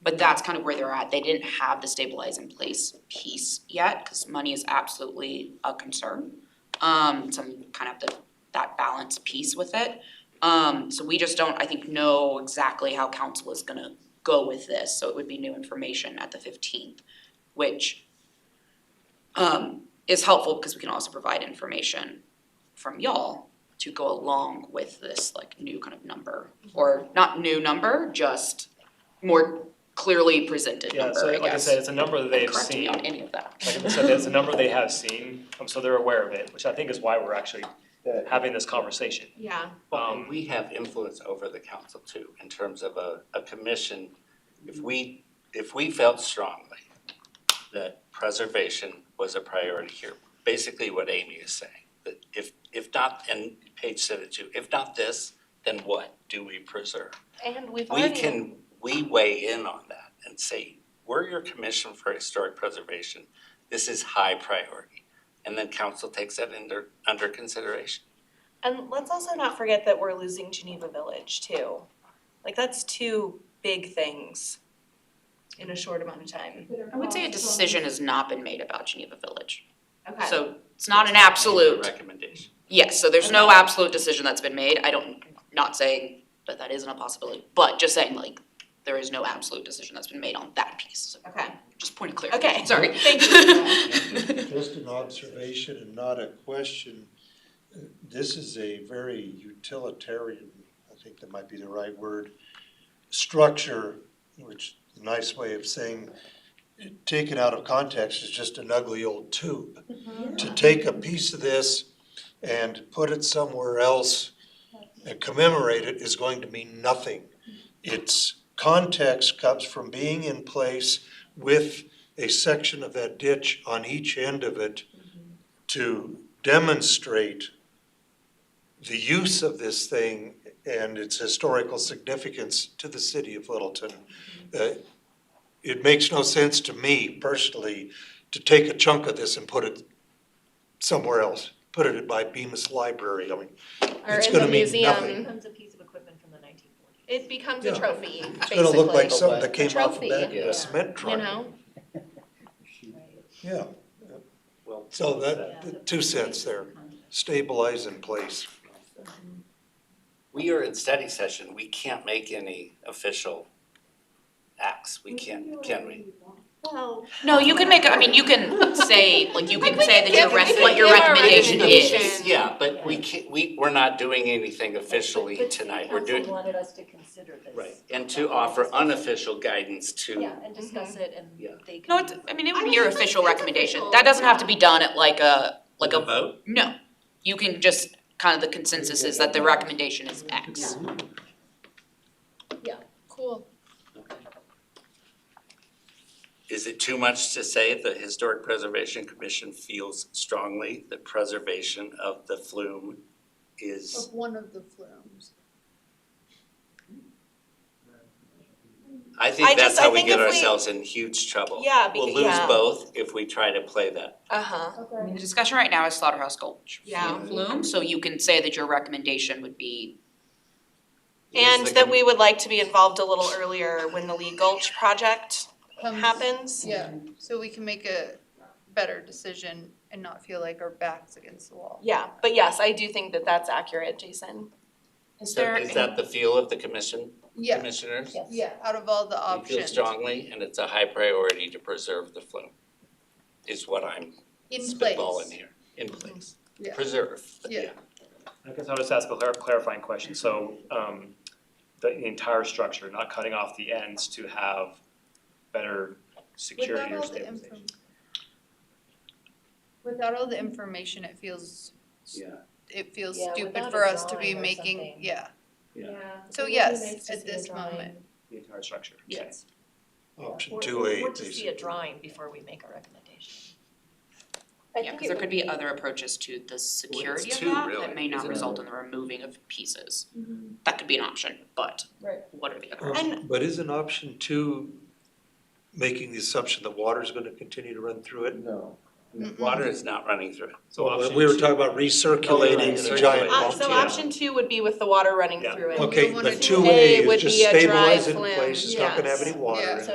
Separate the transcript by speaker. Speaker 1: But that's kind of where they're at. They didn't have the stabilize in place piece yet, cause money is absolutely a concern. Um, so I'm kind of the, that balance piece with it. Um, so we just don't, I think, know exactly how council is gonna go with this, so it would be new information at the fifteenth, which um, is helpful because we can also provide information from y'all to go along with this like new kind of number, or not new number, just more clearly presented
Speaker 2: Yeah,
Speaker 1: number,
Speaker 2: so
Speaker 1: I
Speaker 2: like I
Speaker 1: guess.
Speaker 2: said, it's a number
Speaker 1: Don't
Speaker 2: that they've
Speaker 1: Uh, Correct me
Speaker 2: seen,
Speaker 1: on
Speaker 2: like
Speaker 1: any of that.
Speaker 2: I said, it's a number they have seen, um, so they're aware of it, which I think is why we're actually having this conversation.
Speaker 3: Yeah,
Speaker 4: Well, and
Speaker 2: Um,
Speaker 4: we have influence over the council too, in terms of a, a commission. If we, if we felt strongly that preservation was a priority here, basically what Amy is saying, that if, if not, and Paige said it too, if not this, then what do we preserve?
Speaker 3: and we've
Speaker 4: We
Speaker 3: already.
Speaker 4: can, we weigh in on that and say, we're your commission for historic preservation. This is high priority. And then council takes that under, under consideration.
Speaker 3: And let's also not forget that we're losing Geneva Village too. Like that's two big things in a short amount of time.
Speaker 1: I would say a decision has not been made about Geneva Village,
Speaker 3: Okay.
Speaker 1: so it's not an absolute,
Speaker 4: Recommendation.
Speaker 1: yes, so there's no absolute decision that's been made, I don't, not saying that that isn't a possibility, but just saying like, there is no absolute decision that's been made on that piece, so
Speaker 3: Okay.
Speaker 1: Just point of
Speaker 3: Okay.
Speaker 1: clarification, sorry.
Speaker 3: Thank you.
Speaker 5: Just an observation and not a question. This is a very utilitarian, I think that might be the right word, structure, which a nice way of saying, taken out of context is just an ugly old tube.
Speaker 6: Mm-hmm.
Speaker 5: To take a piece of this and put it somewhere else and commemorate it is going to mean nothing. Its context comes from being in place with a section of that ditch on each end of it to demonstrate the use of this thing and its historical significance to the city of Littleton. Uh, It makes no sense to me personally to take a chunk of this and put it somewhere else, put it by Bemis Library, I mean,
Speaker 7: Or
Speaker 5: It's
Speaker 7: in
Speaker 5: gonna
Speaker 7: the
Speaker 5: mean
Speaker 7: museum.
Speaker 5: nothing.
Speaker 6: Becomes a piece of equipment from the nineteen forties.
Speaker 3: It becomes a
Speaker 5: Yeah.
Speaker 3: trophy, basically.
Speaker 5: it's gonna look like something that came off the back of
Speaker 4: Yeah.
Speaker 5: a cement
Speaker 7: You
Speaker 5: truck.
Speaker 7: know,
Speaker 5: Yeah,
Speaker 4: Well,
Speaker 5: so that, two cents there, stabilize in place.
Speaker 4: We are in study session, we can't make any official acts, we can't, can we?
Speaker 3: Well,
Speaker 1: No, you can make, I mean, you can say, like, you can
Speaker 3: Like, we
Speaker 1: say
Speaker 3: can
Speaker 1: that your
Speaker 3: give-
Speaker 1: rec-
Speaker 3: we can
Speaker 1: what your
Speaker 3: give our
Speaker 1: recommendation is.
Speaker 3: recommendation.
Speaker 4: Yeah, but we can't, we, we're not doing anything officially tonight, we're
Speaker 6: But the city
Speaker 4: doing,
Speaker 6: council wanted us to consider this.
Speaker 4: right, and to offer unofficial guidance
Speaker 6: Yeah,
Speaker 4: to,
Speaker 6: and discuss it and
Speaker 4: Yeah.
Speaker 6: they. could-
Speaker 1: No, it's, I mean, it
Speaker 3: I
Speaker 1: would be
Speaker 3: mean,
Speaker 1: your
Speaker 3: it's like-
Speaker 1: official
Speaker 3: it's
Speaker 1: recommendation,
Speaker 3: official,
Speaker 1: that doesn't have to
Speaker 3: yeah.
Speaker 1: be done at like a, like a,
Speaker 4: vote?
Speaker 1: no. You can just, kind of the consensus is that the recommendation is X.
Speaker 7: cool.
Speaker 4: Is it too much to say the Historic Preservation Commission feels strongly that preservation of the flume is,
Speaker 7: Of one of the flumes.
Speaker 4: I
Speaker 3: I
Speaker 4: think that's
Speaker 3: just- I
Speaker 4: how we
Speaker 3: think
Speaker 4: get
Speaker 3: if we-
Speaker 4: ourselves in huge trouble.
Speaker 3: Yeah, becau-
Speaker 4: We'll lose
Speaker 3: yeah.
Speaker 4: both if we try to play that.
Speaker 3: uh-huh.
Speaker 1: I
Speaker 7: Okay.
Speaker 1: mean, the discussion right now is Slaughterhouse Gulch.
Speaker 3: Yeah.
Speaker 1: Flume, so you can say that your recommendation would be,
Speaker 3: And
Speaker 4: Is the
Speaker 3: that
Speaker 4: com-
Speaker 3: we would like to be involved a little earlier when the Lee Gulch project happens.
Speaker 7: Yeah, so we can make a better decision and not feel like our backs against the wall.
Speaker 3: Yeah, but yes, I do think that that's accurate, Jason.
Speaker 1: is
Speaker 4: So
Speaker 1: there?
Speaker 4: is that the feel of the commission,
Speaker 7: Yeah,
Speaker 4: commissioners?
Speaker 6: Yes.
Speaker 7: yeah, out of all the
Speaker 4: We feel
Speaker 7: options,
Speaker 4: strongly, and it's a high priority to preserve the flume, is what I'm
Speaker 7: in
Speaker 4: spitballing
Speaker 7: place, Mm-hmm.
Speaker 4: here, in place.
Speaker 7: Yeah.
Speaker 4: Preserve,
Speaker 7: Yeah.
Speaker 4: yeah.
Speaker 2: I guess I'll just ask a clar- clarifying question, so, um, the the entire structure, not cutting off the ends to have better
Speaker 7: without
Speaker 2: security or
Speaker 7: all the
Speaker 2: stabilization.
Speaker 7: info. Without all the information, it feels, it feels
Speaker 6: Yeah,
Speaker 7: stupid
Speaker 6: without a
Speaker 7: for us to be
Speaker 6: drawing or
Speaker 7: making,
Speaker 6: something.
Speaker 7: yeah,
Speaker 4: Yeah.
Speaker 7: So
Speaker 6: it would be
Speaker 7: yes,
Speaker 6: nice to
Speaker 7: at
Speaker 6: see a
Speaker 7: this
Speaker 6: drawing.
Speaker 7: moment.
Speaker 2: The entire structure, okay.
Speaker 6: Yes.
Speaker 5: Option
Speaker 6: Or-
Speaker 5: two A,
Speaker 6: Or to see a
Speaker 5: basically.
Speaker 6: drawing before we make a recommendation.
Speaker 3: I
Speaker 1: Yeah,
Speaker 3: think
Speaker 1: cause
Speaker 3: it
Speaker 1: there
Speaker 3: would
Speaker 1: could be other approaches to the security of
Speaker 4: two,
Speaker 1: that
Speaker 4: really,
Speaker 1: that may not
Speaker 4: isn't it?
Speaker 1: result in the removing of pieces. That could be an option, but
Speaker 6: Right.
Speaker 1: what are the other?
Speaker 5: Um,
Speaker 3: And-
Speaker 5: But isn't option two making the assumption that water's gonna continue to run through it? No.
Speaker 7: Mm-mm.
Speaker 4: Water is not running through.
Speaker 2: So option
Speaker 5: We were
Speaker 2: two- Oh,
Speaker 5: talking about recirculating in a
Speaker 4: Recirculating.
Speaker 5: giant
Speaker 3: Uh,
Speaker 5: pump.
Speaker 3: so
Speaker 2: Yeah.
Speaker 3: option two would be with the water running
Speaker 2: Yeah.
Speaker 3: through it.
Speaker 7: we
Speaker 5: Okay,
Speaker 7: wanna
Speaker 5: but
Speaker 7: do
Speaker 5: two
Speaker 3: A
Speaker 5: A
Speaker 3: would
Speaker 5: is just
Speaker 3: be a dry
Speaker 5: stabilize it in
Speaker 3: flume,
Speaker 5: place, it's not gonna have
Speaker 3: yes.
Speaker 5: any water in
Speaker 7: Yeah.
Speaker 5: it.